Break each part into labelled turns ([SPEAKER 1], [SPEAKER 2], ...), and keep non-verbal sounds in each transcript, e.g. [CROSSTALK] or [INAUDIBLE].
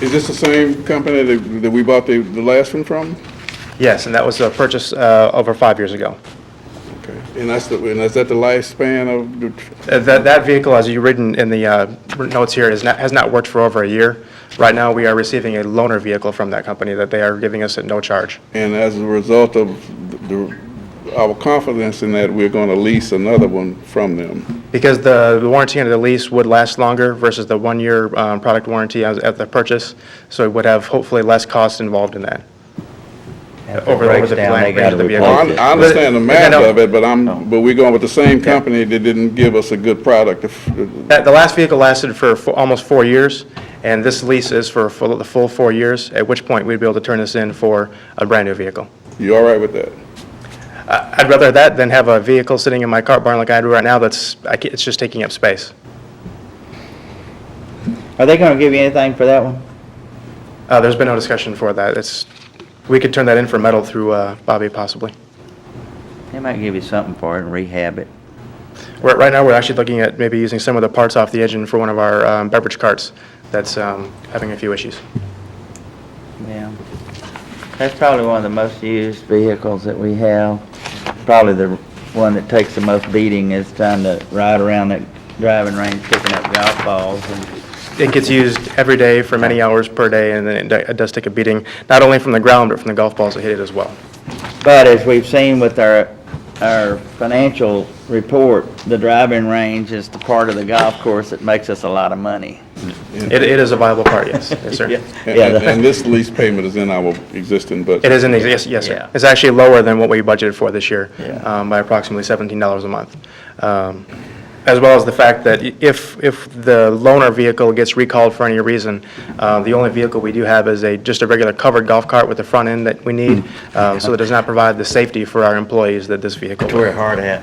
[SPEAKER 1] Is this the same company that, that we bought the, the last one from?
[SPEAKER 2] Yes, and that was a purchase uh, over five years ago.
[SPEAKER 1] Okay. And that's the, and is that the lifespan of the,
[SPEAKER 2] Uh, That, that vehicle, as you written in the uh, notes here, is not, has not worked for over a year. Right now, we are receiving a loaner vehicle from that company that they are giving us at no charge.
[SPEAKER 1] and as a result of the, our confidence in that, we're gonna lease another one from them?
[SPEAKER 2] Because the the warranty under the lease would last longer versus the one-year um, product warranty as- at the purchase, so it would have hopefully less costs involved in that.
[SPEAKER 3] If it
[SPEAKER 2] Over- over
[SPEAKER 3] breaks
[SPEAKER 2] the
[SPEAKER 3] down,
[SPEAKER 2] plan
[SPEAKER 3] they
[SPEAKER 2] range
[SPEAKER 3] gotta
[SPEAKER 2] of the
[SPEAKER 3] replace
[SPEAKER 2] vehicle.
[SPEAKER 1] Well, I,
[SPEAKER 3] it.
[SPEAKER 1] I understand the math of it, but I'm, but we're going with the same
[SPEAKER 2] Yeah.
[SPEAKER 1] company that didn't give us a good product. If-
[SPEAKER 2] That- The last vehicle lasted for fo- almost four years, and this lease is for full- the full four years, at which point we'd be able to turn this in for a brand-new vehicle.
[SPEAKER 1] You all right with that?
[SPEAKER 2] I'd rather that than have a vehicle sitting in my cart barn like I do right now that's, I ca- it's just taking up space.
[SPEAKER 3] Are they gonna give you anything for that one?
[SPEAKER 2] Uh, There's been no discussion for that. It's, we could turn that in for metal through uh, Bobby possibly.
[SPEAKER 3] They might give you something for it and rehab it.
[SPEAKER 2] Right right now, we're actually looking at maybe using some of the parts off the engine for one of our um, beverage carts that's um, having a few issues.
[SPEAKER 3] Yeah. That's probably one of the most used vehicles that we have. Probably the one that takes the most beating is trying to ride around that driving range picking up golf balls and
[SPEAKER 2] It gets used every day for many hours per day, and then it do- it does take a beating, not only from the ground, but from the golf balls that hit it as well.
[SPEAKER 3] But as we've seen with our, our financial report, the driving range is the part of the golf course that makes us a lot of money.
[SPEAKER 2] It It is a viable part, yes, yes, sir.
[SPEAKER 3] Yeah,
[SPEAKER 1] And, [LAUGHS]
[SPEAKER 3] yeah,
[SPEAKER 1] and-
[SPEAKER 3] the-
[SPEAKER 1] and this lease payment is in our existing budget?
[SPEAKER 2] It is in the, yes, yes, sir.
[SPEAKER 3] Yeah.
[SPEAKER 2] It's actually lower than what we budgeted for this year
[SPEAKER 3] Yeah.
[SPEAKER 2] um, by approximately $17 a month. Um, As well as the fact that i- if, if the loaner vehicle gets recalled for any reason, uh, the only vehicle we do have is a, just a regular covered golf cart with the front end that we need, um, so it does not provide the safety for our employees that this vehicle
[SPEAKER 3] Wear a
[SPEAKER 2] would.
[SPEAKER 3] hard hat.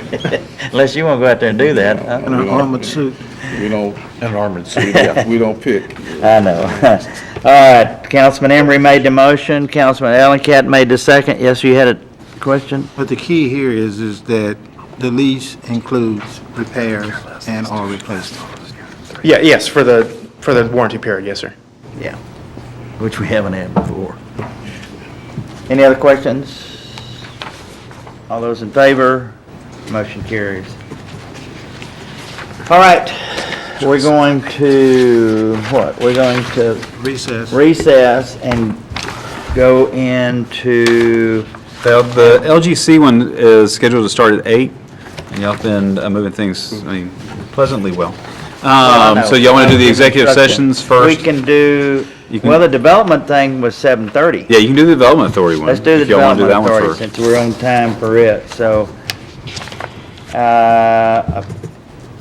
[SPEAKER 3] [LAUGHS] Unless you wanna go out there and do that, huh?
[SPEAKER 4] And an armored suit.
[SPEAKER 1] We don't,
[SPEAKER 4] An armored suit,
[SPEAKER 1] we don't pick.
[SPEAKER 3] I know. [LAUGHS] All right, Councilman Emery made the motion, Councilman Ellencat made the second. Yes, you had a question?
[SPEAKER 4] But the key here is, is that the lease includes repairs and all replacements.
[SPEAKER 2] Yeah, yes, for the, for the warranty period, yes, sir.
[SPEAKER 3] Yeah. Which we haven't had before. Any other questions? All those in favor? Motion carries. All right, we're going to, what? We're going to
[SPEAKER 4] Recess.
[SPEAKER 3] recess and go into,
[SPEAKER 5] The- The LGC one is scheduled to start at eight, and y'all been uh, moving things, I mean, pleasantly well. Um, So y'all want to do the executive sessions
[SPEAKER 3] we
[SPEAKER 5] first?
[SPEAKER 3] can do,
[SPEAKER 5] You can-
[SPEAKER 3] well, the development thing was 7:30.
[SPEAKER 5] Yeah, you can do the Development Authority one.
[SPEAKER 3] Let's do the
[SPEAKER 5] if y'all wanna do
[SPEAKER 3] Development
[SPEAKER 5] that one
[SPEAKER 3] Authority,
[SPEAKER 5] first.
[SPEAKER 3] since we're on time for it, so, uh,